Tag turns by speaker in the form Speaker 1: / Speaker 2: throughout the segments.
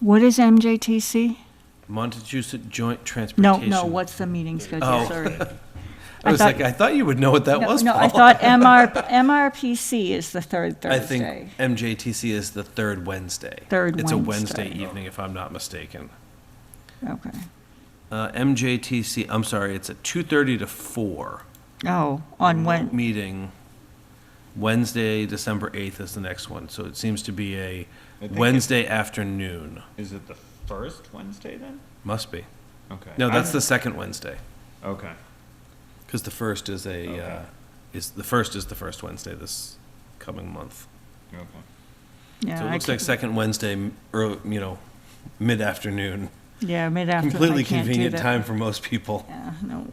Speaker 1: What is MJTC?
Speaker 2: Montezut Joint
Speaker 1: No,
Speaker 2: Transportation.
Speaker 1: no, what's the meeting schedule,
Speaker 2: Oh.
Speaker 1: sorry.
Speaker 2: I was
Speaker 1: I thought-
Speaker 2: like, I thought you would know what that
Speaker 1: No,
Speaker 2: was,
Speaker 1: No, I
Speaker 2: Paul.
Speaker 1: thought MR, MRPC is the third
Speaker 2: I think
Speaker 1: Thursday.
Speaker 2: MJTC is the third Wednesday.
Speaker 1: Third
Speaker 2: It's a
Speaker 1: Wednesday.
Speaker 2: Wednesday evening, if I'm not mistaken.
Speaker 1: Okay.
Speaker 2: Uh, MJTC, I'm sorry, it's at 2:30 to 4.
Speaker 1: Oh, on
Speaker 2: Remote
Speaker 1: when,
Speaker 2: Meeting, Wednesday, December 8th is the next one, so it seems to be a
Speaker 3: think it-
Speaker 2: Wednesday afternoon.
Speaker 3: Is it the first Wednesday then?
Speaker 2: Must be.
Speaker 3: Okay.
Speaker 2: No, that's
Speaker 3: I'm-
Speaker 2: the second Wednesday,
Speaker 3: Okay.
Speaker 2: because the first is a, uh,
Speaker 3: Okay.
Speaker 2: is, the first is the first Wednesday this coming month.
Speaker 3: Okay.
Speaker 1: yeah.
Speaker 2: So it
Speaker 1: I
Speaker 2: looks like
Speaker 1: can't-
Speaker 2: second Wednesday, m- early, you know, mid-afternoon.
Speaker 1: Yeah, mid-afternoon. I
Speaker 2: Completely
Speaker 1: can't do
Speaker 2: convenient
Speaker 1: that.
Speaker 2: time for most people.
Speaker 1: Yeah, no.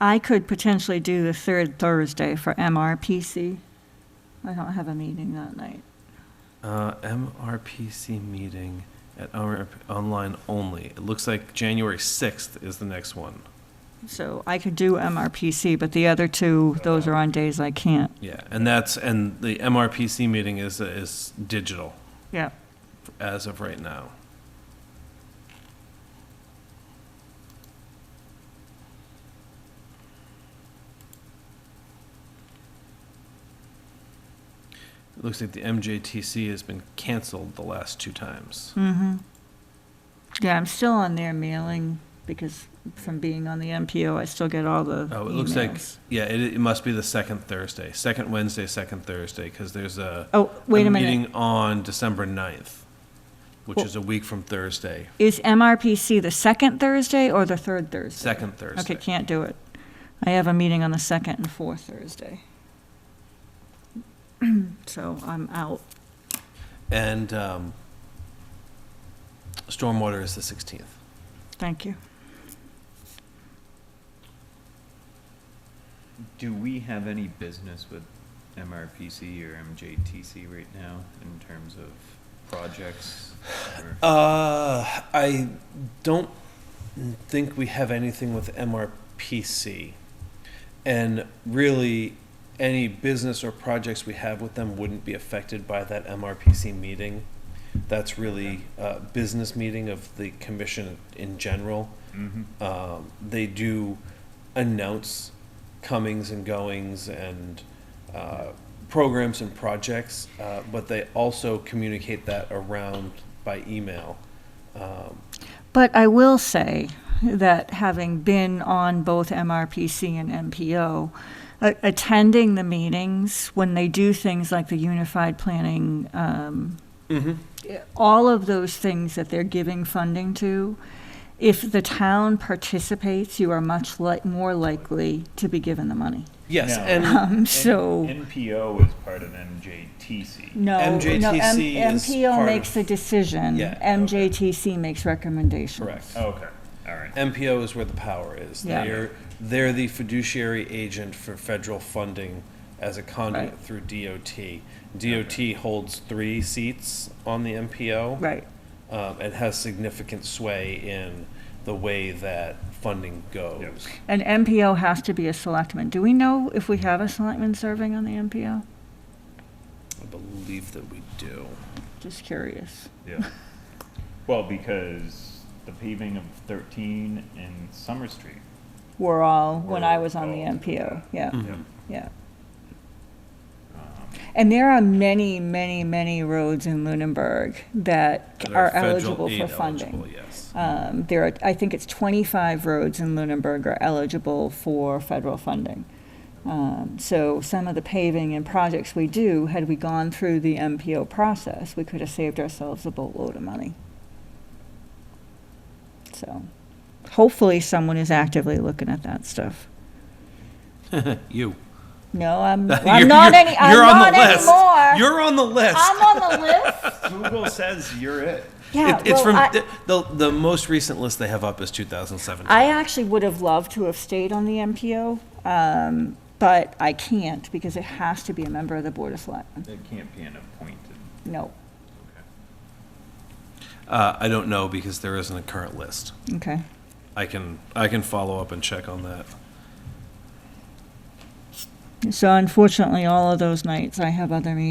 Speaker 1: I could potentially do the third Thursday for MRPC. I don't have a meeting that night.
Speaker 2: Uh, MRPC meeting at our, online only. It looks like January 6th is the next one.
Speaker 1: So I could do MRPC, but the other two, those are on days I can't.
Speaker 2: Yeah, and that's, and the MRPC meeting is, is digital
Speaker 1: Yeah.
Speaker 2: as of right now. It looks like the MJTC has been canceled the last two times.
Speaker 1: Mm-hmm. Yeah, I'm still on their mailing because from being on the MPO, I still get all the
Speaker 2: Oh, it looks like,
Speaker 1: emails.
Speaker 2: yeah, it, it must be the second Thursday, second Wednesday, second Thursday, because there's a.
Speaker 1: Oh, wait a minute.
Speaker 2: Meeting on December 9th, which
Speaker 1: Well-
Speaker 2: is a week from Thursday,
Speaker 1: Is MRPC the second Thursday or the third Thursday?
Speaker 2: second
Speaker 1: Okay,
Speaker 2: Thursday.
Speaker 1: can't do it. I have a meeting on the second and fourth Thursday. So I'm out.
Speaker 2: And um, stormwater is the 16th.
Speaker 1: Thank you.
Speaker 3: Do we have any business with MRPC or MJTC right now in terms of projects? or-
Speaker 2: Uh, I don't think we have anything with MRPC. And really, any business or projects we have with them wouldn't be affected by that MRPC meeting. That's really a business meeting of the commission in general.
Speaker 3: Mhm.
Speaker 2: Um, they do announce comings and goings and uh, programs and projects, uh, but they also communicate that around by email. Um,
Speaker 1: But I will say that having been on both MRPC and MPO, a- attending the meetings, when they do things like the Unified Planning um,
Speaker 2: Mm-hmm.
Speaker 1: all of those things that they're giving funding to, if the town participates, you are much li- more likely to be given the money.
Speaker 2: Yes,
Speaker 3: No.
Speaker 2: and
Speaker 1: Um, so,
Speaker 3: NPO is part of MJTC.
Speaker 1: no, no,
Speaker 2: MJTC
Speaker 1: M-
Speaker 2: is
Speaker 1: MPO
Speaker 2: part
Speaker 1: makes
Speaker 2: of-
Speaker 1: a decision.
Speaker 2: Yeah, okay.
Speaker 1: MJTC makes recommendations.
Speaker 2: correct.
Speaker 3: Oh, Okay, all right.
Speaker 2: MPO is where the power is.
Speaker 1: Yeah.
Speaker 2: They're they're the fiduciary agent for federal funding as a conduit
Speaker 1: Right.
Speaker 2: through DOT. DOT holds three seats on the MPO.
Speaker 1: Right,
Speaker 2: um, and has significant sway in the way that funding goes.
Speaker 1: and MPO has to be a selectman. Do we know if we have a selectman serving on the MPO?
Speaker 2: I believe that we do.
Speaker 1: Just curious.
Speaker 3: Yeah. Well, because the paving of thirteen and Summer Street.
Speaker 1: We're all, when I was on the
Speaker 3: We're all-
Speaker 1: MPO, yeah.
Speaker 2: Mm-hmm.
Speaker 3: Yep.
Speaker 1: Yeah. And there are many, many, many roads in Lunenburg that
Speaker 2: That
Speaker 1: are
Speaker 2: federal
Speaker 1: eligible for
Speaker 2: aid eligible,
Speaker 1: funding.
Speaker 2: Yes.
Speaker 1: Um, There are, I think it's 25 roads in Lunenburg are eligible for federal funding. Um, So some of the paving and projects we do, had we gone through the MPO process, we could have saved ourselves a boatload of money. So hopefully someone is actively looking at that stuff.
Speaker 2: You.
Speaker 1: No, I'm,
Speaker 2: You're-
Speaker 1: I'm not any, I'm
Speaker 2: you're on
Speaker 1: not
Speaker 2: the list.
Speaker 1: anymore.
Speaker 2: You're on the list.
Speaker 1: I'm on the list?
Speaker 3: Google says you're it.
Speaker 1: Yeah,
Speaker 2: It- It's
Speaker 1: well,
Speaker 2: from,
Speaker 1: I,
Speaker 2: the- the, the most recent list they have up is 2017.
Speaker 1: I actually would have loved to have stayed on the MPO, um, but I can't because it has to be a member of the Board of Selectmen.
Speaker 3: It can't be an appointed.
Speaker 1: No,
Speaker 2: Uh, I don't know because there isn't a current list.
Speaker 1: okay.
Speaker 2: I can, I can follow up and check on that.
Speaker 1: So unfortunately, all of those nights I have other meetings